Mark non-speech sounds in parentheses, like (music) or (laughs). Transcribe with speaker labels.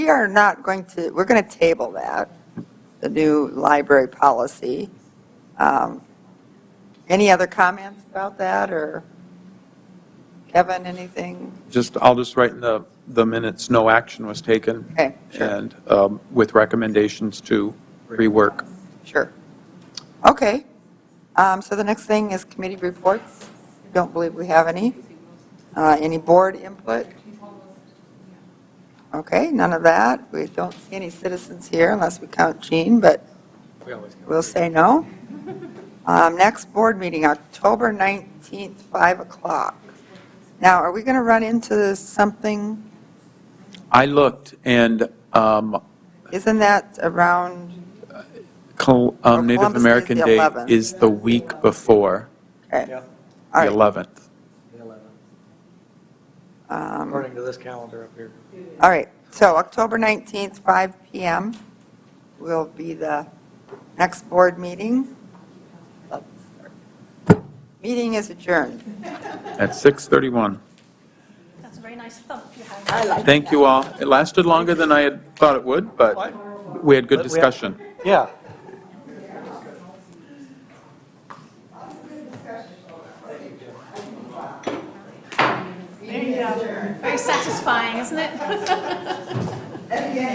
Speaker 1: We are not going to, we're going to table that, the new library policy. Um, Any other comments about that, or Kevin, anything?
Speaker 2: Just, I'll just write in the, the minutes, no action was taken.
Speaker 1: Okay, sure.
Speaker 2: And um, with recommendations to rework.
Speaker 1: Sure. Okay. Um, So the next thing is committee reports. Don't believe we have any. Uh, Any board input? Okay, none of that. We don't see any citizens here unless we count Jean, but we'll say no. Um, Next board meeting, October 19th, 5 o'clock. Now, are we going to run into something?
Speaker 2: I looked and um,
Speaker 1: Isn't that around,
Speaker 2: Col- um, Native
Speaker 1: Columbus Day is
Speaker 2: American
Speaker 1: the
Speaker 2: Day
Speaker 1: 11th.
Speaker 2: is the week before,
Speaker 1: okay.
Speaker 2: the
Speaker 1: All right.
Speaker 2: 11th.
Speaker 3: The 11th,
Speaker 1: Um,
Speaker 3: according to this calendar up here.
Speaker 1: All right, so October 19th, 5 PM will be the next board meeting. Meeting is adjourned.
Speaker 2: At 6:31.
Speaker 4: That's a very nice thump you have.
Speaker 2: Thank you all. It lasted longer than I had thought it would, but we had good
Speaker 3: But we have-
Speaker 2: discussion.
Speaker 3: Yeah.
Speaker 4: (laughs) Very satisfying, isn't it?